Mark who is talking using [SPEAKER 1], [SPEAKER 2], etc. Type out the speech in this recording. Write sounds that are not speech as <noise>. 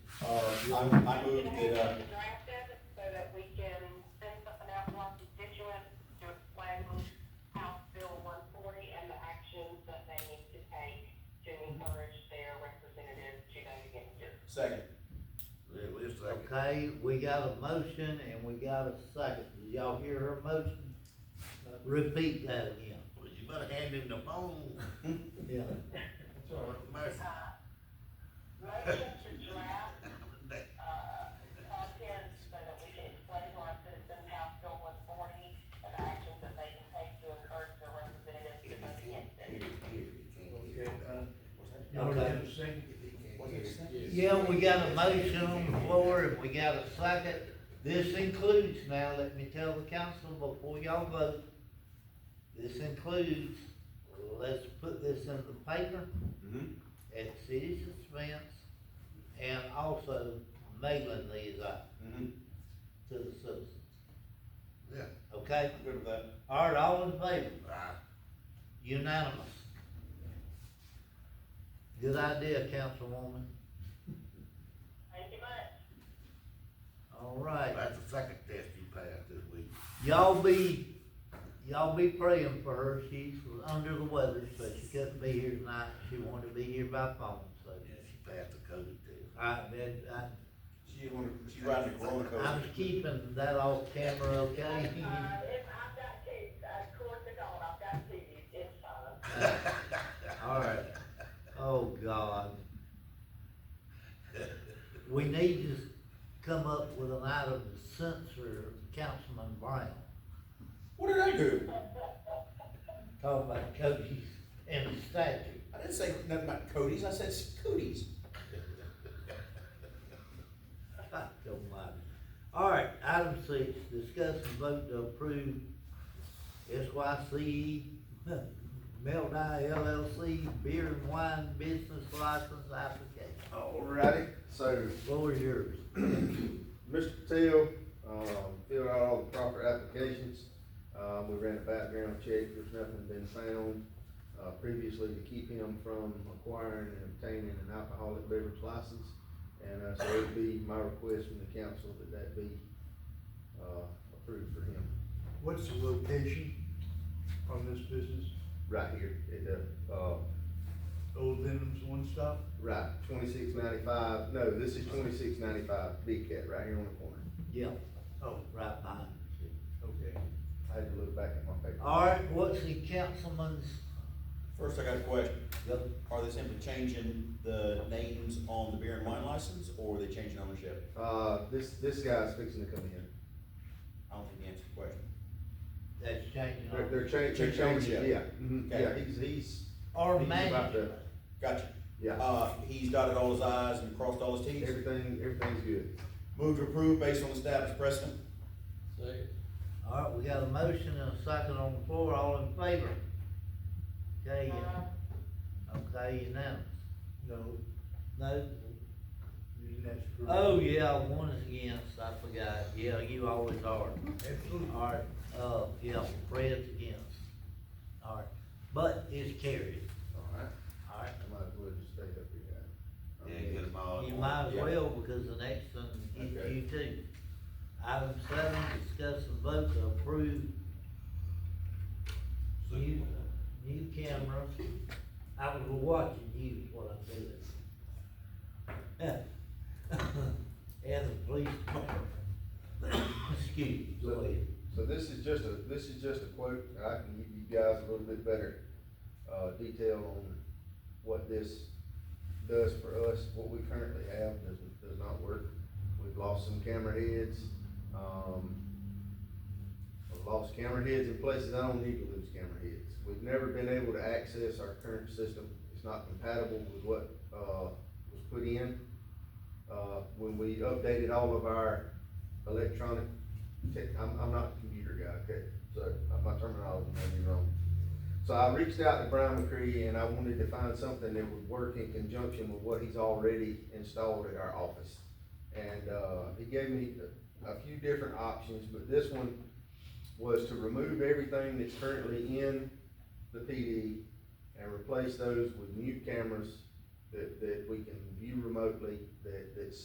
[SPEAKER 1] Uh, I, I moved it, uh,
[SPEAKER 2] Drafted so that we can send something out to our constituents to explain House Bill one forty and the actions that they need to take to encourage their representatives to vote against it.
[SPEAKER 1] second.
[SPEAKER 3] Yeah, we just like,
[SPEAKER 4] Okay, we got a motion and we got a second. Did y'all hear her motion? Repeat that again.
[SPEAKER 3] well, you better hand him the phone.
[SPEAKER 4] Yeah.
[SPEAKER 3] Mercy.
[SPEAKER 2] Uh, Motion to draft, uh, content so that we can explain to our citizens House Bill one forty and the actions that they can take to encourage their representatives to vote against it.
[SPEAKER 5] Y'all have a second?
[SPEAKER 4] Yeah, we got a motion on the floor and we got a second. This includes, now let me tell the council before y'all vote, this includes, let's put this in the paper
[SPEAKER 1] Mhm.
[SPEAKER 4] at city's expense and also mailing these out
[SPEAKER 1] Mhm.
[SPEAKER 4] to the citizens,
[SPEAKER 3] Yeah.
[SPEAKER 4] okay?
[SPEAKER 1] I'm good with that.
[SPEAKER 4] All right, all in favor?
[SPEAKER 3] Aye.
[SPEAKER 4] Unanimous. Good idea, Councilwoman.
[SPEAKER 2] Thank you much.
[SPEAKER 4] All right.
[SPEAKER 3] That's the second test you passed this week.
[SPEAKER 4] Y'all be, y'all be praying for her. She's under the weather, so she couldn't be here tonight. She wanted to be here by phone, so.
[SPEAKER 3] Yeah, she passed the COVID <laughs> test.
[SPEAKER 4] I, I,
[SPEAKER 1] She wanted, she riding a roller
[SPEAKER 4] I, I'm
[SPEAKER 1] coaster.
[SPEAKER 4] keeping that off camera, okay? <laughs>
[SPEAKER 2] Uh, if I've got kids, uh, course I don't, I've got kids, it's fine.
[SPEAKER 4] All right. Oh, God. We need to come up with an item to censor Councilman Brown.
[SPEAKER 1] What did I do?
[SPEAKER 4] Talk about coaches and the statute.
[SPEAKER 1] I didn't say nothing about Cody's, I said Cooties.
[SPEAKER 4] God almighty. <laughs> All right, item six, discuss and vote to approve <laughs> SYC, Meltdown LLC Beer and Wine Business License Application.
[SPEAKER 6] Alrighty, so
[SPEAKER 4] Floor is yours.
[SPEAKER 6] Mr. Patel, um, filled out all the proper applications. Um, we ran a background check, there's nothing been found, uh, previously to keep him from acquiring and obtaining an alcoholic beverage license. And, uh, so it'd be my request from the council that that be, uh, approved for him.
[SPEAKER 5] What's the location on this business?
[SPEAKER 6] Right here, at the, uh,
[SPEAKER 5] Old Denham's One Stop?
[SPEAKER 6] right, twenty-six ninety-five, no, this is twenty-six ninety-five, Big Cat, right here on the corner.
[SPEAKER 4] Yeah,
[SPEAKER 5] Oh,
[SPEAKER 4] right behind you.
[SPEAKER 5] okay.
[SPEAKER 6] I had to look back at my paper.
[SPEAKER 4] All right, what's the councilman's?
[SPEAKER 1] First, I got a question.
[SPEAKER 4] Yep.
[SPEAKER 1] Are they simply changing the names on the beer and wine license, or are they changing ownership?
[SPEAKER 6] Uh, this, this guy's fixing to come in.
[SPEAKER 1] I don't think you answered the question.
[SPEAKER 4] That's changing.
[SPEAKER 6] They're,
[SPEAKER 4] on-
[SPEAKER 6] they're changing, they're
[SPEAKER 1] They're changing,
[SPEAKER 6] changing,
[SPEAKER 1] yeah.
[SPEAKER 6] yeah, mhm,
[SPEAKER 1] Okay.
[SPEAKER 6] yeah, he's, he's,
[SPEAKER 4] Or
[SPEAKER 6] he's about
[SPEAKER 4] management.
[SPEAKER 6] to,
[SPEAKER 1] Gotcha.
[SPEAKER 6] yeah,
[SPEAKER 1] Uh, he's dotted all his i's and crossed all his t's.
[SPEAKER 6] everything, everything's good.
[SPEAKER 1] Move to approve based on established precedent.
[SPEAKER 4] All right, we got a motion and a second on the floor, all in favor? Okay, okay, unanimous.
[SPEAKER 5] No,
[SPEAKER 4] No,
[SPEAKER 5] you didn't ask for.
[SPEAKER 4] Oh, yeah, one is against, I forgot, yeah, you always are.
[SPEAKER 5] Absolutely.
[SPEAKER 4] Alright, uh, yeah, Fred's against. Alright, but it's carried,
[SPEAKER 6] Alright.
[SPEAKER 4] alright?
[SPEAKER 6] I might as well just stay up here.
[SPEAKER 3] Yeah, get them all.
[SPEAKER 4] You might as
[SPEAKER 1] Oh, yeah.
[SPEAKER 4] well, because the next one, you,
[SPEAKER 1] Okay.
[SPEAKER 4] you too. Item seven, discuss and vote to approve new, new cameras. I was watching you, is what I'm doing. <laughs> And the police department. <coughs> Excuse me, go ahead.
[SPEAKER 6] So this is just a, this is just a quote, and I can give you guys a little bit better, uh, detail on what this does for us. What we currently have does, does not work. We've lost some camera heads, um, I've lost camera heads in places I don't need to lose camera heads. We've never been able to access our current system. It's not compatible with what, uh, was put in. Uh, when we updated all of our electronic Okay, I'm, I'm not a computer guy, okay, so my terminology may be wrong. So I reached out to Brian McCree and I wanted to find something that would work in conjunction with what he's already installed at our office. And, uh, he gave me a- a few different options, but this one was to remove everything that's currently in the PD and replace those with new cameras that, that we can view remotely, that, that's